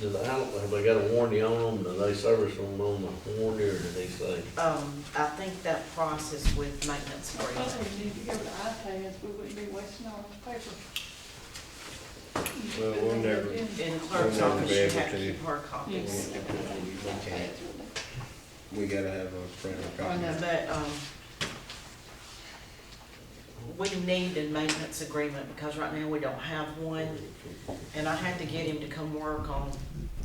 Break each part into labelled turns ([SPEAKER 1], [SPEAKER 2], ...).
[SPEAKER 1] do they, how, have they got a warranty on them, do they service them on the warranty, or do they say?
[SPEAKER 2] Um, I think that process with maintenance
[SPEAKER 3] That's what
[SPEAKER 2] agreement.
[SPEAKER 3] we need to go to iPads, we wouldn't be wasting all this paper.
[SPEAKER 4] Well, we'll never-
[SPEAKER 2] In the clerk's
[SPEAKER 4] We'll never
[SPEAKER 2] office,
[SPEAKER 4] be
[SPEAKER 2] you
[SPEAKER 4] able
[SPEAKER 2] have to
[SPEAKER 4] to.
[SPEAKER 2] keep hard copies.
[SPEAKER 3] Yes.
[SPEAKER 4] Okay. We gotta have a printed
[SPEAKER 3] I know.
[SPEAKER 4] copy.
[SPEAKER 2] But, um, we need a maintenance agreement because right now we don't have one. And I had to get him to come work on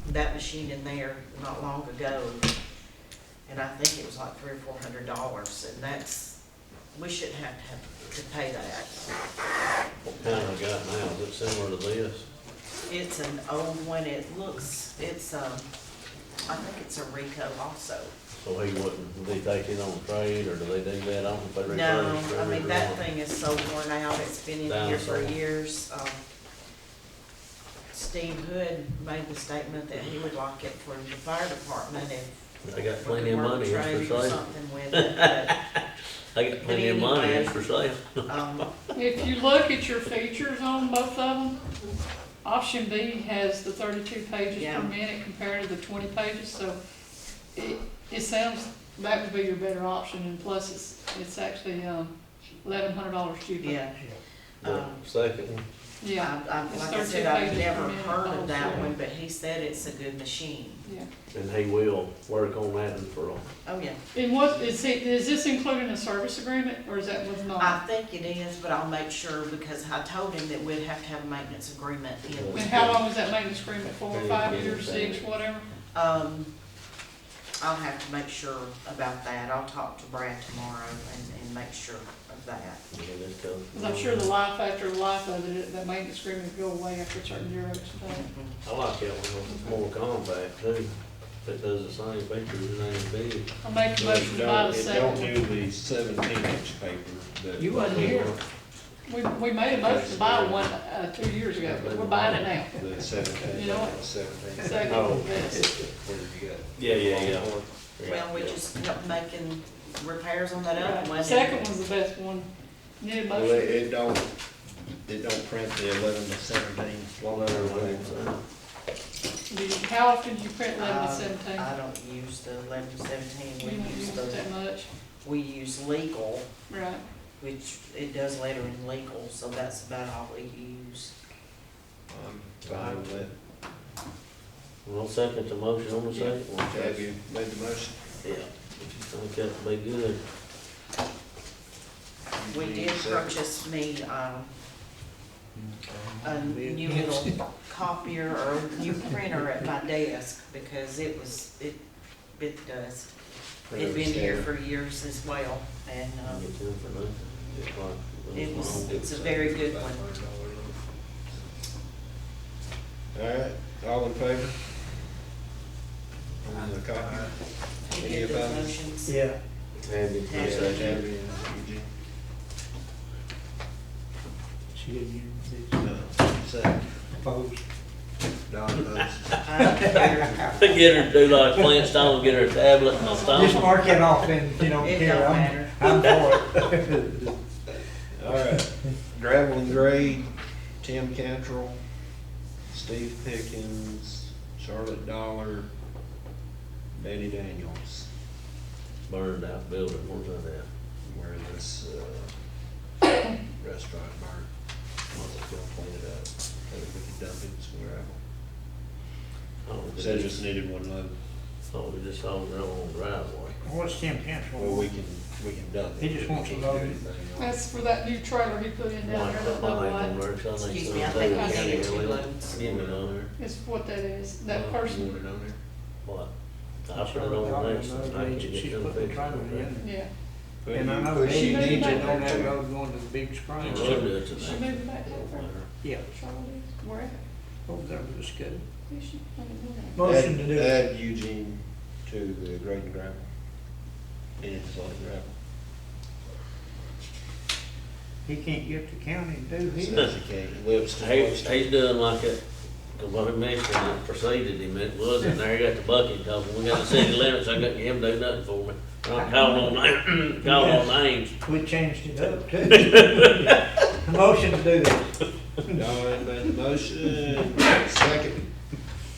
[SPEAKER 2] that machine in there not long ago. And I think it was like three or four hundred dollars and that's, we shouldn't have to have to pay that.
[SPEAKER 1] What kind I got now, is it similar to this?
[SPEAKER 2] It's an old one, it looks, it's, um, I think it's a Rico also.
[SPEAKER 1] So he wouldn't, would they take it on trade, or do they do that, I don't know if they
[SPEAKER 2] No,
[SPEAKER 1] refurbish
[SPEAKER 2] I
[SPEAKER 1] every
[SPEAKER 2] mean, that
[SPEAKER 1] one.
[SPEAKER 2] thing is so worn out, it's been in here for
[SPEAKER 1] Dinosaur.
[SPEAKER 2] years. Um, Steve Hood made the statement that he would like it for the fire department if
[SPEAKER 1] They got
[SPEAKER 2] we
[SPEAKER 1] plenty of
[SPEAKER 2] could work
[SPEAKER 1] money, it's
[SPEAKER 2] trade or
[SPEAKER 1] for sale,
[SPEAKER 2] something with it. but,
[SPEAKER 1] they got plenty of money, it's for sale.
[SPEAKER 2] um,
[SPEAKER 3] If you look at your features on both of them, option B has the thirty-two pages
[SPEAKER 2] Yeah.
[SPEAKER 3] per minute compared to the twenty pages, so it, it sounds, that would be your better option, and plus it's, it's actually, um, eleven hundred dollars cheaper.
[SPEAKER 2] Yeah,
[SPEAKER 1] The
[SPEAKER 2] Um,
[SPEAKER 1] second one,
[SPEAKER 3] Yeah,
[SPEAKER 2] I, I,
[SPEAKER 3] It's
[SPEAKER 2] like I
[SPEAKER 3] 13
[SPEAKER 2] said, I've
[SPEAKER 3] pages per
[SPEAKER 2] never
[SPEAKER 3] minute
[SPEAKER 2] heard of that
[SPEAKER 3] also.
[SPEAKER 2] one, but he said it's a good machine.
[SPEAKER 3] yeah.
[SPEAKER 1] and he will work on that for, a-
[SPEAKER 2] Oh, yeah.
[SPEAKER 3] And what, is it, is this including a service agreement, or is that with
[SPEAKER 2] I
[SPEAKER 3] not?
[SPEAKER 2] think it is, but I'll make sure because I told him that we'd have to have a maintenance agreement in.
[SPEAKER 3] And how long was that maintenance agreement for, five years, six, whatever?
[SPEAKER 2] Um, I'll have to make sure about that. I'll talk to Brad tomorrow and, and make sure of that.
[SPEAKER 1] yeah, this comes.
[SPEAKER 3] Because I'm sure the life after life of it, that maintenance agreement would go away after a certain year or so.
[SPEAKER 1] I like that one, it's more compact too, it does the same features, it ain't big.
[SPEAKER 3] I make a
[SPEAKER 4] But it
[SPEAKER 3] motion to buy
[SPEAKER 4] don't,
[SPEAKER 3] the
[SPEAKER 4] it don't
[SPEAKER 3] second.
[SPEAKER 4] do the seventeen inch paper that.
[SPEAKER 5] You wasn't here.
[SPEAKER 3] We, we made a motion to buy one, uh, two years ago, but we're buying it now.
[SPEAKER 4] The seventeen.
[SPEAKER 3] You know what?
[SPEAKER 4] Seventeen.
[SPEAKER 1] Oh.
[SPEAKER 3] Second best.
[SPEAKER 4] Where you got?
[SPEAKER 1] Yeah, yeah, yeah.
[SPEAKER 4] Longhorn?
[SPEAKER 2] Well, we just kept making repairs on that other one.
[SPEAKER 3] Second one's the best one. Need a
[SPEAKER 4] Well, it,
[SPEAKER 3] motion.
[SPEAKER 4] it don't, it don't print the eleven to seventeen, one other way.
[SPEAKER 3] Do you- How often do you print eleven to
[SPEAKER 2] Uh,
[SPEAKER 3] seventeen?
[SPEAKER 2] I don't use the eleven seventeen.
[SPEAKER 3] We
[SPEAKER 2] We
[SPEAKER 3] don't
[SPEAKER 2] use
[SPEAKER 3] use it
[SPEAKER 2] the,
[SPEAKER 3] that much,
[SPEAKER 2] we use legal,
[SPEAKER 3] right?
[SPEAKER 2] which it does later in legal, so that's about all we use.
[SPEAKER 4] I'm fine with it.
[SPEAKER 1] I'll second the motion on the second one.
[SPEAKER 4] Have you made the motion?
[SPEAKER 1] Yeah, if you think that'd be good.
[SPEAKER 2] We did purchase me, um, a new little copier or a new printer at my desk because it was, it, it does. It'd been here for years as well and,
[SPEAKER 1] I'll
[SPEAKER 2] um,
[SPEAKER 1] get them for nothing. It's like-
[SPEAKER 2] It was- it's a very good
[SPEAKER 4] one. All right, all in favor? On the copy?
[SPEAKER 2] he
[SPEAKER 4] Any
[SPEAKER 2] did the
[SPEAKER 4] opposed?
[SPEAKER 2] motions.
[SPEAKER 5] Yeah.
[SPEAKER 4] Tabby.
[SPEAKER 2] Tabby.
[SPEAKER 4] Yeah, Tabby and Eugene.
[SPEAKER 5] She didn't even say
[SPEAKER 4] No, second.
[SPEAKER 5] opposed.
[SPEAKER 4] Don uh, votes.
[SPEAKER 2] I don't care.
[SPEAKER 1] Get her to do like Flint Stone, get her a tablet and a
[SPEAKER 5] Just
[SPEAKER 1] stone.
[SPEAKER 5] mark it off and, you know,
[SPEAKER 2] It
[SPEAKER 5] here,
[SPEAKER 2] don't
[SPEAKER 5] I'm,
[SPEAKER 2] matter.
[SPEAKER 5] I'm for it.
[SPEAKER 4] All right, gravel and grade, Tim Cantrell, Steve Pickens, Charlotte Dollar, Betty Daniels.
[SPEAKER 1] Burned out building, where's that at?
[SPEAKER 4] where this, uh, restaurant bar, once it's gonna clean it up, so that we can dump it somewhere else.
[SPEAKER 1] Oh, we
[SPEAKER 4] Said
[SPEAKER 1] just-
[SPEAKER 4] just needed one load,
[SPEAKER 1] Oh, we just saw it on the driveway.
[SPEAKER 5] What's Tim Cantrell?
[SPEAKER 4] well, we can, we can dump it.
[SPEAKER 5] He just wants a
[SPEAKER 4] We can't do
[SPEAKER 5] load.
[SPEAKER 4] anything else.
[SPEAKER 3] That's for that new trailer he put in down
[SPEAKER 1] Mike,
[SPEAKER 3] there.
[SPEAKER 1] that
[SPEAKER 3] that little
[SPEAKER 1] mine ain't gonna
[SPEAKER 3] lot.
[SPEAKER 1] work, so I think
[SPEAKER 2] Excuse me, I
[SPEAKER 1] something
[SPEAKER 2] think I
[SPEAKER 1] we gotta
[SPEAKER 2] needed
[SPEAKER 1] get
[SPEAKER 2] two
[SPEAKER 1] rid of.
[SPEAKER 2] loads.
[SPEAKER 1] Get it on there.
[SPEAKER 3] It's what that is, that
[SPEAKER 1] Uh,
[SPEAKER 3] person,
[SPEAKER 4] Want it on
[SPEAKER 1] What? I put it on the next, one. I can get
[SPEAKER 5] She's
[SPEAKER 1] them
[SPEAKER 5] putting
[SPEAKER 1] fixed.
[SPEAKER 5] trailer in.
[SPEAKER 3] yeah.
[SPEAKER 4] there?
[SPEAKER 5] And I know
[SPEAKER 4] But
[SPEAKER 5] she
[SPEAKER 4] you
[SPEAKER 3] moved
[SPEAKER 5] needs
[SPEAKER 4] need
[SPEAKER 5] it
[SPEAKER 3] back
[SPEAKER 4] to
[SPEAKER 5] on that
[SPEAKER 4] know.
[SPEAKER 5] road going to the big spring.
[SPEAKER 1] I'll do it tonight.
[SPEAKER 3] She moved back up there.
[SPEAKER 5] Yeah,
[SPEAKER 3] Charlotte is, wherever.
[SPEAKER 5] over there with the school.
[SPEAKER 3] Who's she? I don't know that.
[SPEAKER 5] Motion to do it.
[SPEAKER 4] Add add Eugene to the grade and gravel, and it's like gravel.
[SPEAKER 5] He can't get the county to do his.
[SPEAKER 4] Says he can't, Webster.
[SPEAKER 1] He's, he's doing like it, cause when he mentioned it preceded him, it was in there, he got the bucket, told him, we got the city limits, I couldn't him do nothing for me. I'm calling on, na- calling on names,
[SPEAKER 5] We changed it up too. Motion to do it.
[SPEAKER 4] Don made the motion, second,